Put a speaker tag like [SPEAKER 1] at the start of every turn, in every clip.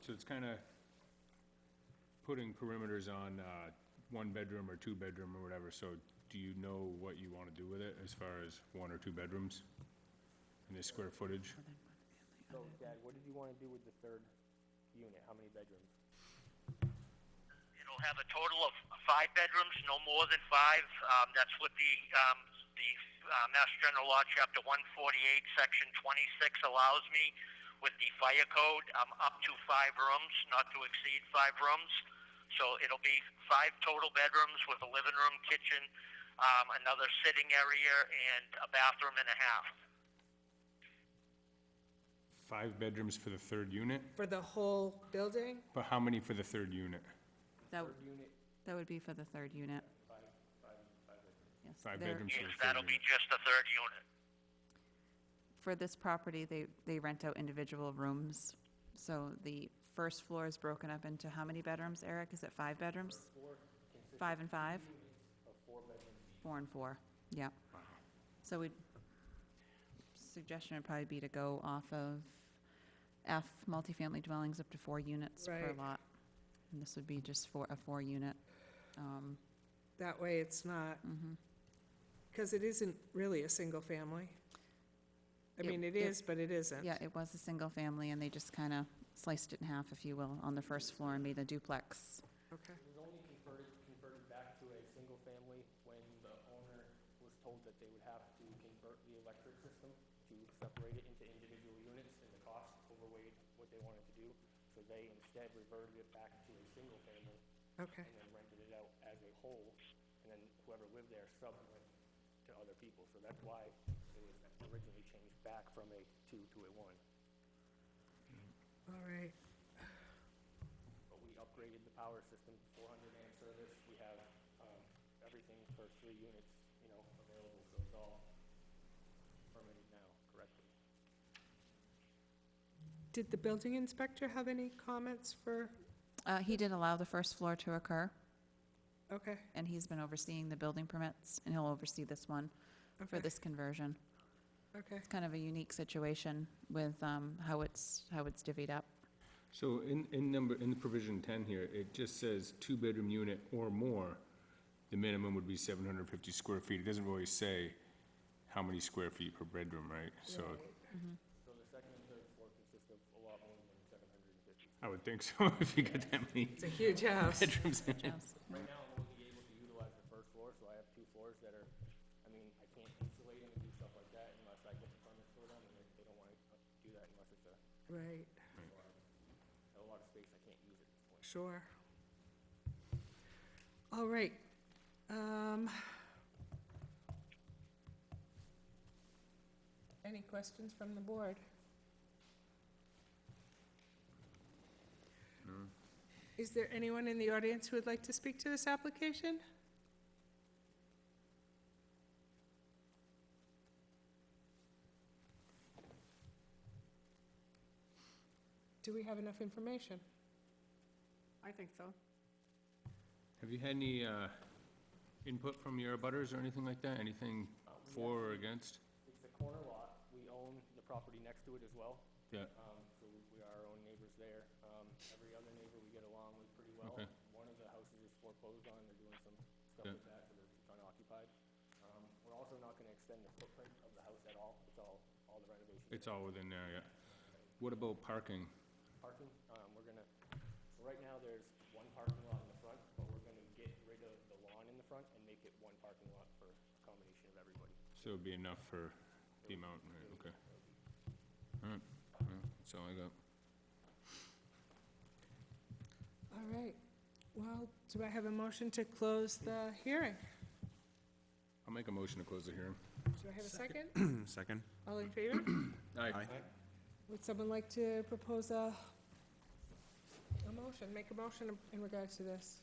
[SPEAKER 1] So it's kind of putting perimeters on uh, one bedroom or two bedroom or whatever, so do you know what you want to do with it as far as one or two bedrooms? And the square footage?
[SPEAKER 2] So Dad, what did you wanna do with the third unit? How many bedrooms?
[SPEAKER 3] It'll have a total of five bedrooms, no more than five. Um, that's what the, um, the, uh, Mass General Law, Chapter one forty-eight, Section twenty-six allows me with the fire code, um, up to five rooms, not to exceed five rooms. So it'll be five total bedrooms with a living room, kitchen, um, another sitting area, and a bathroom and a half.
[SPEAKER 1] Five bedrooms for the third unit,
[SPEAKER 4] For the whole building?
[SPEAKER 1] but how many for the third unit?
[SPEAKER 5] That, that would be for the third unit. Yes,
[SPEAKER 1] Five
[SPEAKER 5] they're-
[SPEAKER 1] bedrooms for
[SPEAKER 3] Yes,
[SPEAKER 1] the third
[SPEAKER 3] that'll be
[SPEAKER 1] unit?
[SPEAKER 3] just the third unit.
[SPEAKER 5] For this property, they, they rent out individual rooms. So the first floor is broken up into how many bedrooms, Eric? Is it five bedrooms? Five and five? Four and four, yeah. So we, suggestion would probably be to go off of F, multifamily dwellings up to four units per
[SPEAKER 4] Right.
[SPEAKER 5] lot. And this would be just for a four-unit, um,
[SPEAKER 4] That way it's not,
[SPEAKER 5] Mm-hmm.
[SPEAKER 4] because it isn't really a single family. I
[SPEAKER 5] It-
[SPEAKER 4] mean, it
[SPEAKER 5] it-
[SPEAKER 4] is, but it isn't.
[SPEAKER 5] Yeah, it was a single family, and they just kind of sliced it in half, if you will, on the first floor and made a duplex.
[SPEAKER 4] Okay.
[SPEAKER 2] It was only converted, converted back to a single family when the owner was told that they would have to convert the electric system to separate it into individual units and the cost overweighed what they wanted to do. So they instead reverted it back to a single family
[SPEAKER 4] Okay,
[SPEAKER 2] and then rented it out as a whole. And then whoever lived there sublet to other people. So that's why it was originally changed back from a two to a one.
[SPEAKER 4] all right.
[SPEAKER 2] But we upgraded the power system, four hundred amp service, we have, um, everything for three units, you know, available, so it's all permitted now correctly.
[SPEAKER 4] Did the building inspector have any comments for,
[SPEAKER 5] Uh, He did allow the first floor to occur,
[SPEAKER 4] okay,
[SPEAKER 5] and he's been overseeing the building permits, and he'll oversee this one for
[SPEAKER 4] okay,
[SPEAKER 5] this conversion.
[SPEAKER 4] okay.
[SPEAKER 5] It's kind of a unique situation with um, how it's, how it's divvied up.
[SPEAKER 1] So in, in number, in the provision ten here, it just says two bedroom unit or more, the minimum would be seven hundred and fifty square feet. It doesn't really say how many square feet per bedroom, right? So
[SPEAKER 2] So the second and third floor consist of a lot more than seven hundred and fifty.
[SPEAKER 1] I would think so, if you got that many
[SPEAKER 4] It's a huge house.
[SPEAKER 1] bedrooms in it.
[SPEAKER 5] Yes.
[SPEAKER 2] Right now, I'm only able to utilize the first floor, so I have two floors that are, I mean, I can't insulate them and do stuff like that unless I get the permits for them, and they- they don't wanna uh, do that unless it's a,
[SPEAKER 4] Right,
[SPEAKER 2] a lot of space I can't use at this point.
[SPEAKER 4] sure. All right. Um, Any questions from the board? Is there anyone in the audience who would like to speak to this application? Do we have enough information?
[SPEAKER 6] I think so.
[SPEAKER 1] Have you had any, uh, input from your butters or anything like that? Anything for or against?
[SPEAKER 2] It's a corner lot. We own the property next to it as well.
[SPEAKER 1] Yeah.
[SPEAKER 2] Um, so we- we are our own neighbors there. Um, every other neighbor we get along with pretty well.
[SPEAKER 1] Okay.
[SPEAKER 2] One of the houses is foreclosed on, they're doing some stuff
[SPEAKER 1] Yeah.
[SPEAKER 2] with that, so it's unoccupied. Um, we're also not gonna extend the footprint of the house at all. It's all, all the renovation.
[SPEAKER 1] It's all within there, yeah. What about parking?
[SPEAKER 2] Parking, um, we're gonna, so right now, there's one parking lot in the front, but we're gonna get rid of the lawn in the front and make it one parking lot for accommodation of everybody.
[SPEAKER 1] So it'd be enough for the amount, right, okay. All right, well, that's all I got.
[SPEAKER 4] All right. Well, do I have a motion to close the hearing?
[SPEAKER 1] I'll make a motion to close the hearing.
[SPEAKER 4] Do I have a second?
[SPEAKER 7] Second.
[SPEAKER 4] All in favor?
[SPEAKER 7] Aye.
[SPEAKER 4] Would someone like to propose a, a motion, make a motion in regards to this?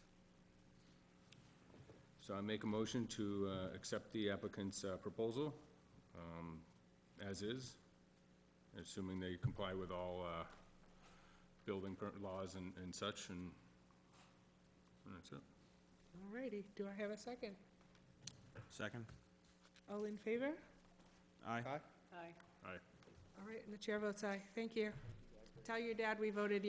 [SPEAKER 1] So I make a motion to uh, accept the applicant's uh, proposal um, as is, assuming they comply with all uh, building per- laws and and such, and and that's it.
[SPEAKER 4] All righty, do I have a second?
[SPEAKER 7] Second.
[SPEAKER 4] All in favor?
[SPEAKER 7] Aye.
[SPEAKER 4] Aye.
[SPEAKER 1] Aye.
[SPEAKER 4] All right, and the chair votes aye. Thank you. Tell your dad we voted yes.